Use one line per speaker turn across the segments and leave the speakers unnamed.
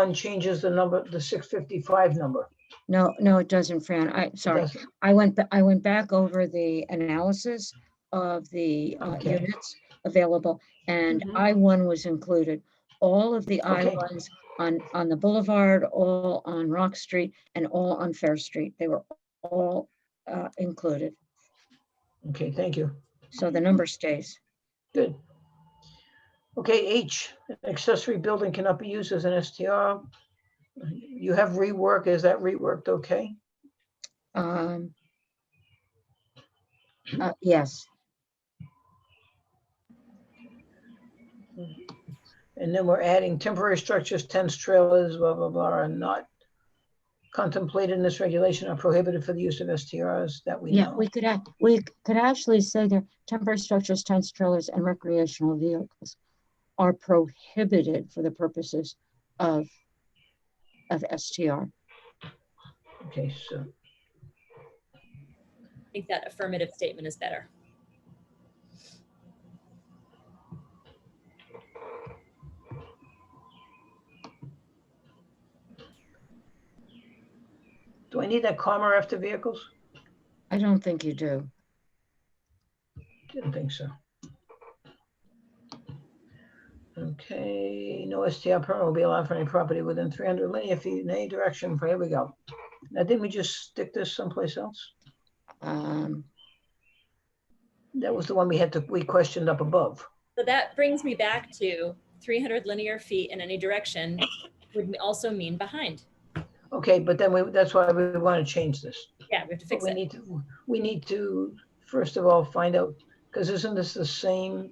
one changes the number, the six fifty-five number.
No, no, it doesn't, Fran. I, sorry.
Does-
I went, ba- I went back over the analysis of the uh,
Okay.
units available and
Mhm.
I one was included. All of the I
Okay.
ones on, on the boulevard, all on Rock Street and all on Fair Street. They were all uh, included.
Okay, thank you.
So the number stays.
Good. Okay, H, accessory building cannot be used as an STR. You have rework, is that reworked okay?
Um, uh, Yes,
And then we're adding temporary structures, tents, trailers, blah, blah, blah, are not contemplated in this regulation are prohibited for the use of STRs that we
yeah,
know.
we could, act- we c- could actually say there, temporary structures, tents, trailers, and recreational vehicles are prohibited for the purposes of, of STR.
Okay, so,
I think that affirmative statement is better.
do I need that comma after vehicles?
I don't think you do.
Didn't think so. Okay, no STR permit will be allowed for any property within three hundred linear feet in any direction, here we go. Now, didn't we just stick this someplace else?
Um,
That was the one we had to, we questioned up above.
So that brings me back to 300 linear feet in any direction would also mean behind.
Okay, but then we, that's why we want to change this.
Yeah, we have to
But
fix
we
it.
need to, we need to, first of all, find out, because isn't this the same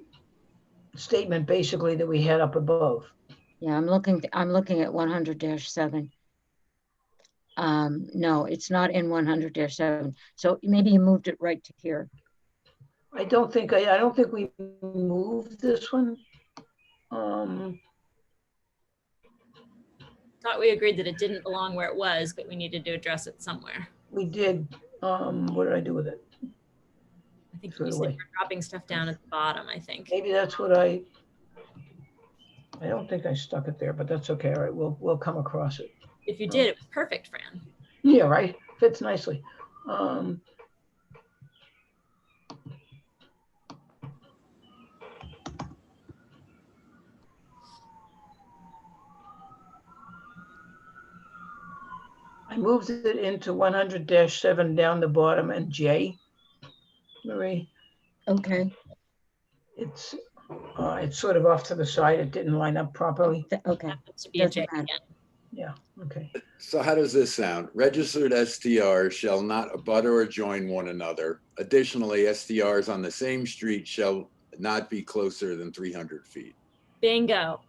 statement basically that we had up above?
yeah, I'm looking, I'm looking at one hundred seven. Um, no, it's not in one hundred seven. So maybe you moved it right to here.
I don't think, I, I don't think we moved this one. Um,
Thought we agreed that it didn't belong where it was, but we needed to address it somewhere.
We did, um, what did I do with it?
I think
Threw
you
it
said
away.
we're dropping stuff down at the bottom, I think.
Maybe that's what I, I don't think I stuck it there, but that's okay, all right, we'll, we'll come across it.
If you did, it was perfect, Fran.
Yeah, right, fits nicely. Um. I moved it into one hundred seven down the bottom and J. Marie?
Okay,
It's, uh, it's sort of off to the side. It didn't line up properly.
th- okay.
Happens to be a
Doesn't
J
matter.
again.
Okay.
So how does this sound? Registered STRs shall not abut or join one another. Additionally, STRs on the same street shall not be closer than 300 feet.
Bingo.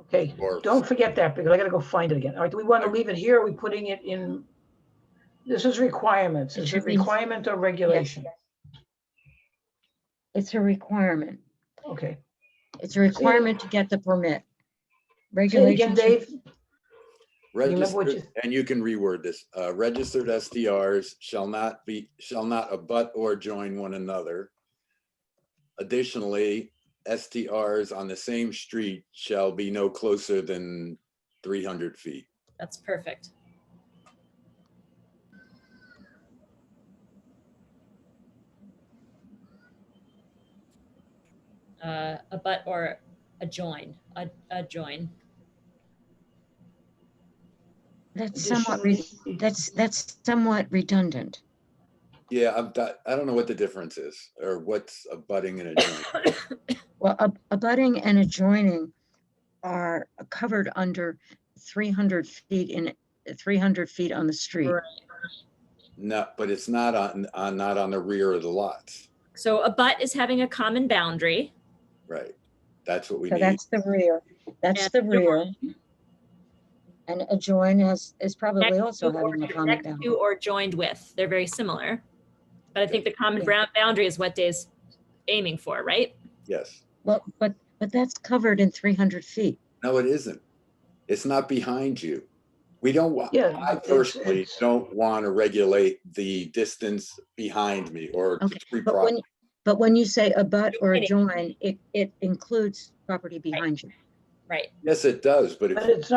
Okay.
Or
Don't forget that because I gotta go find it again. All right, do we want to leave it here? Are we putting it in? This is requirements.
It
Is
should
it
be-
requirement or regulation?
It's a requirement.
Okay.
It's a requirement to get the permit.
Say it again,
Regulations. are-
Dave. remember what
registered, and you can reword this, uh, registered STRs shall not be, shall not abut or join one another. Additionally, STRs on the same street shall be no closer than 300 feet.
That's perfect. Uh, a but or a join, a, a join.
That's somewhat, re-
Additionally-
that's, that's somewhat redundant.
Yeah, I'm, di- I don't know what the difference is or what's abutting and adjoining.
Well, ab- abutting and adjoining are covered under three hundred feet in, three hundred feet on the street.
Right.
No, but it's not on, on, not on the rear of the lots,
So a but is having a common boundary.
right? That's what we
So
need.
that's the rear, that's
And
the rear. And adjoin is, is probably
Next
also
to or-
having a comment
next
down.
to Or joined with, they're very similar. But I think the common
Yeah.
brown boundary is what Dave's aiming for, right?
Yes.
Well, but, but that's covered in three hundred feet.
No, it isn't. It's not behind you. We don't want,
Yeah,
I
it's-
personally
it's-
don't want to regulate the distance behind me or
Okay,
three
But when,
property.
but when you say abut or
Adjoining.
adjoin, it, it includes property behind you.
right?
Yes, it does, but it
But it's